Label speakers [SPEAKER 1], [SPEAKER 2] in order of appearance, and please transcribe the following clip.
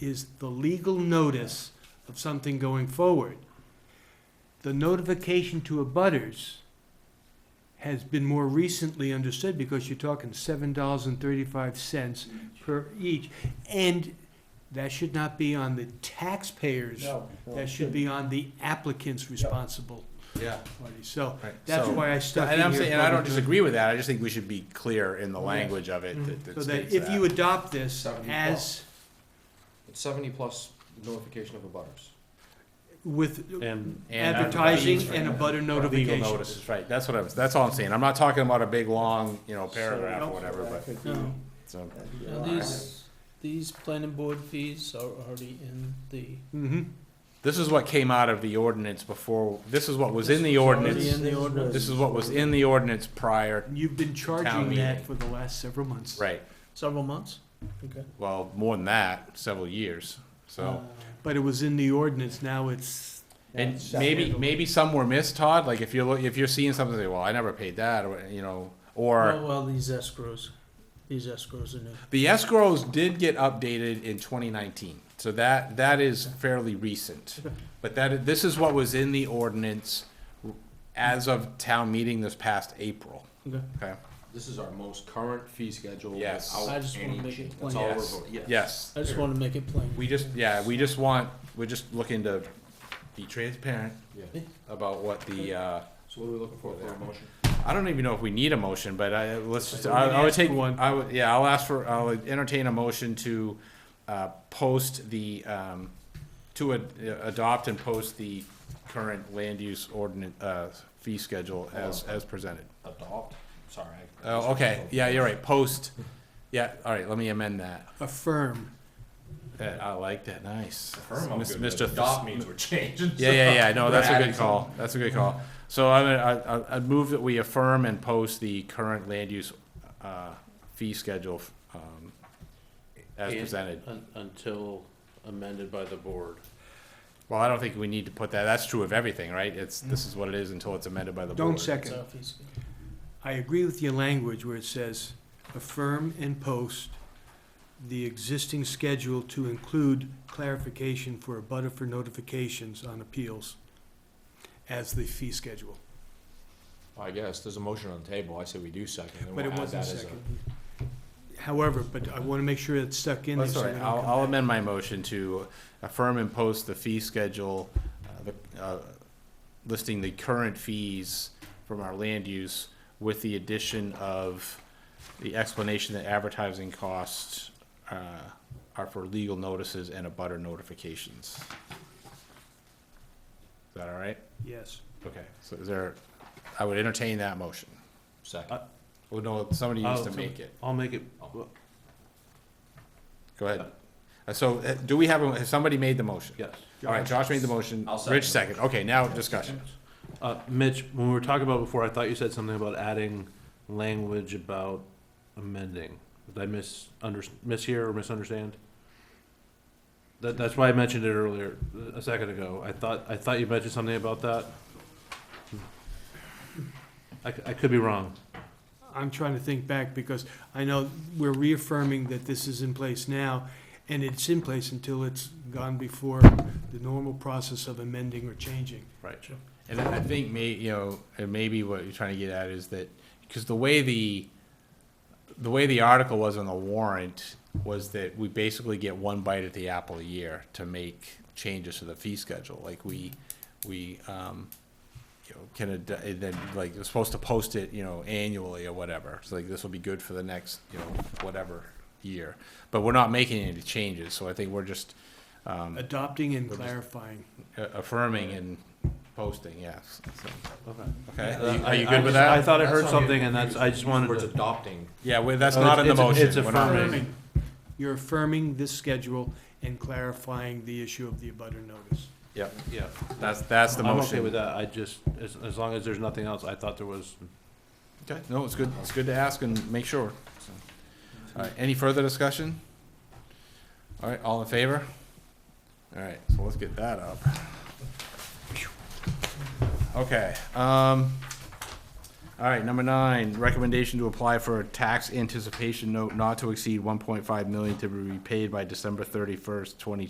[SPEAKER 1] is the legal notice of something going forward. The notification to abutters has been more recently understood because you're talking seven dollars and thirty-five cents per each. And that should not be on the taxpayers.
[SPEAKER 2] No, no, it
[SPEAKER 1] That should be on the applicant's responsible
[SPEAKER 3] Yeah.
[SPEAKER 1] party. So
[SPEAKER 3] Right.
[SPEAKER 1] that's
[SPEAKER 3] So-
[SPEAKER 1] why I stuck in
[SPEAKER 3] And I'm
[SPEAKER 1] here
[SPEAKER 3] saying, and I don't
[SPEAKER 1] public-
[SPEAKER 3] disagree with that, I just think we should be clear in the
[SPEAKER 2] Yes.
[SPEAKER 3] language of it
[SPEAKER 1] Mhm.
[SPEAKER 3] that-
[SPEAKER 1] So
[SPEAKER 3] that
[SPEAKER 1] that
[SPEAKER 3] states
[SPEAKER 1] if you
[SPEAKER 3] that.
[SPEAKER 1] adopt this
[SPEAKER 4] Seven,
[SPEAKER 1] as
[SPEAKER 4] It's seventy plus notification of the butters.
[SPEAKER 1] with
[SPEAKER 5] And
[SPEAKER 3] And
[SPEAKER 1] advertising
[SPEAKER 3] fees for-
[SPEAKER 1] and a butter
[SPEAKER 3] for legal
[SPEAKER 1] notification.
[SPEAKER 3] notices, right, that's what I was, that's all I'm saying, I'm not talking about a big, long, you know, paragraph
[SPEAKER 1] So-
[SPEAKER 3] or whatever,
[SPEAKER 2] That
[SPEAKER 3] but,
[SPEAKER 2] could be-
[SPEAKER 5] No.
[SPEAKER 3] so.
[SPEAKER 2] that'd be
[SPEAKER 5] Now,
[SPEAKER 2] all right.
[SPEAKER 5] these, these planning board fees are already in the,
[SPEAKER 1] Mm-hmm.
[SPEAKER 3] This is what came out of the ordinance before, this is what was in the
[SPEAKER 5] This was already
[SPEAKER 3] ordinance,
[SPEAKER 5] in the ordinance.
[SPEAKER 3] this is what was in the ordinance prior,
[SPEAKER 1] You've been charging
[SPEAKER 3] meeting.
[SPEAKER 1] that for the last several months.
[SPEAKER 3] right,
[SPEAKER 5] several months? Okay. Uh,
[SPEAKER 3] well, more than that, several years, so.
[SPEAKER 1] But it was in the ordinance, now it's,
[SPEAKER 3] And
[SPEAKER 2] That's
[SPEAKER 3] maybe,
[SPEAKER 2] separate.
[SPEAKER 3] maybe some were missed, Todd, like if you're, lo- if you're seeing something, say, well, I never paid that, or, you know, or.
[SPEAKER 5] Well, well, these escrows, these escrows are new.
[SPEAKER 3] The escrows did get updated in 2019, so that, that is fairly recent. But that, this is what was in the ordinance as of town meeting this past April.
[SPEAKER 5] Okay.
[SPEAKER 3] Okay,
[SPEAKER 4] This is our most current fee schedule
[SPEAKER 3] Yes.
[SPEAKER 5] I
[SPEAKER 4] without
[SPEAKER 5] just wanna
[SPEAKER 4] any
[SPEAKER 5] make it
[SPEAKER 4] change.
[SPEAKER 5] plain.
[SPEAKER 4] That's all we're
[SPEAKER 3] Yes.
[SPEAKER 4] voting, yes.
[SPEAKER 3] yes.
[SPEAKER 5] I just wanted to make it plain.
[SPEAKER 3] We just, yeah, we just want, we're just looking to be transparent
[SPEAKER 4] Yeah.
[SPEAKER 3] about what the, uh,
[SPEAKER 4] So what are we looking for, for a motion?
[SPEAKER 3] I don't even know if we need a motion, but I, let's just,
[SPEAKER 1] I think we
[SPEAKER 3] I, I would
[SPEAKER 1] ask for
[SPEAKER 3] take,
[SPEAKER 1] one.
[SPEAKER 3] I would, yeah, I'll ask for, I'll entertain a motion to, uh, post the, um, to ad- adopt and post the current land use ordinance, uh, fee schedule as,
[SPEAKER 1] Oh.
[SPEAKER 3] as presented.
[SPEAKER 4] Adopt, sorry. I-
[SPEAKER 3] Oh, okay, yeah, you're right, post, yeah, all right, let me amend that.
[SPEAKER 1] affirm.
[SPEAKER 3] That- I like that, nice.
[SPEAKER 4] Affirm, I'm
[SPEAKER 3] Mis-
[SPEAKER 4] good with
[SPEAKER 3] Mr.
[SPEAKER 4] it. Adopt means we're changing.
[SPEAKER 3] Yeah, yeah, yeah, no,
[SPEAKER 4] We're
[SPEAKER 3] that's a
[SPEAKER 4] adding
[SPEAKER 3] good call, that's a good call. So I, would- I, I- I'd move that we affirm and post the current land use, uh, fee schedule, um, as
[SPEAKER 5] And-
[SPEAKER 3] presented.
[SPEAKER 5] Un- Until amended by the board.
[SPEAKER 3] Well, I don't think we need to put that, that's true of everything, right? It's, this
[SPEAKER 4] Mm.
[SPEAKER 3] is what it is until it's amended by the board.
[SPEAKER 1] Don't
[SPEAKER 5] It's
[SPEAKER 1] second.
[SPEAKER 5] our fee schedule.
[SPEAKER 1] I agree with your language where it says affirm and post the existing schedule to include clarification for a butter for notifications on appeals as the fee schedule.
[SPEAKER 4] I guess, there's a motion on the table, I say we do second, then
[SPEAKER 1] But it
[SPEAKER 4] we'll add
[SPEAKER 1] wasn't
[SPEAKER 4] that as a.
[SPEAKER 1] second. However, but I want to make sure it's stuck in there.
[SPEAKER 3] That's
[SPEAKER 1] so
[SPEAKER 3] all
[SPEAKER 1] we
[SPEAKER 3] right,
[SPEAKER 1] don't
[SPEAKER 3] Oh, I'll,
[SPEAKER 1] come
[SPEAKER 3] I'll
[SPEAKER 1] back.
[SPEAKER 3] amend my motion to affirm and post the fee schedule, uh, the, uh, listing the current fees from our land use with the addition of the explanation that advertising costs, uh, are for legal notices and abutter notifications. Is that all right?
[SPEAKER 1] Yes.
[SPEAKER 3] Okay, so is there, I would entertain that motion.
[SPEAKER 4] Second.
[SPEAKER 3] Well, no, somebody
[SPEAKER 1] Oh,
[SPEAKER 3] needs to make it.
[SPEAKER 5] I'll make it.
[SPEAKER 3] Go ahead. Uh, So, uh, do we have, a- has somebody made the motion?
[SPEAKER 5] Yes.
[SPEAKER 3] All right, Josh made the motion,
[SPEAKER 4] I'll second
[SPEAKER 3] Rich
[SPEAKER 4] it.
[SPEAKER 3] second, okay, now discussion.
[SPEAKER 5] Uh, Mitch, when we were talking about before, I thought you said something about adding language about amending. Did I mis, under, mishear or misunderstand? That, that's why I mentioned it earlier, a second ago. I thought, I thought you mentioned something about that. I, c- I could be wrong.
[SPEAKER 1] I'm trying to think back because I know we're reaffirming that this is in place now, and it's in place until it's gone before the normal process of amending or changing.
[SPEAKER 3] Right. And I I think may, you know, and maybe what you're trying to get at is that, because the way the, the way the article was on the warrant was that we basically get one bite at the apple a year to make changes to the fee schedule, like we, we, um, you know, can, ad- and then, like, you're supposed to post it, you know, annually or whatever, so like, this will be good for the next, you know, whatever year. But we're not making any changes, so I think we're just, um,
[SPEAKER 1] Adopting and
[SPEAKER 3] We're just-
[SPEAKER 1] clarifying.
[SPEAKER 3] a- affirming and posting, yes. so.
[SPEAKER 5] Okay.
[SPEAKER 3] Okay,
[SPEAKER 5] Uh,
[SPEAKER 3] are you,
[SPEAKER 5] I-
[SPEAKER 3] are you
[SPEAKER 5] I
[SPEAKER 3] good with
[SPEAKER 5] just- I
[SPEAKER 3] that?
[SPEAKER 5] thought I
[SPEAKER 4] That's
[SPEAKER 5] heard
[SPEAKER 4] not
[SPEAKER 5] something
[SPEAKER 4] getting
[SPEAKER 5] and that's, I
[SPEAKER 4] confused.
[SPEAKER 5] just wanted
[SPEAKER 4] Words
[SPEAKER 5] to,
[SPEAKER 4] adopting,
[SPEAKER 3] Yeah, we that's
[SPEAKER 5] Oh,
[SPEAKER 3] not in the
[SPEAKER 5] it's-
[SPEAKER 3] motion.
[SPEAKER 5] it's
[SPEAKER 3] We're not-
[SPEAKER 5] affirming.
[SPEAKER 1] You're affirming this schedule and clarifying the issue of the abutter notice.
[SPEAKER 3] Yep,
[SPEAKER 5] yeah.
[SPEAKER 3] that's, that's the
[SPEAKER 5] I'm okay with
[SPEAKER 3] motion.
[SPEAKER 5] that. I just, as, as long as there's nothing else, I thought there was
[SPEAKER 3] Okay, no, it's good, it's good to ask and make sure. so. All right, any further discussion? All right, all in favor? All right, so let's get that up. Okay, um, All right, number nine, recommendation to apply for a tax anticipation note not to exceed one point five million to be repaid by December thirty-first, twenty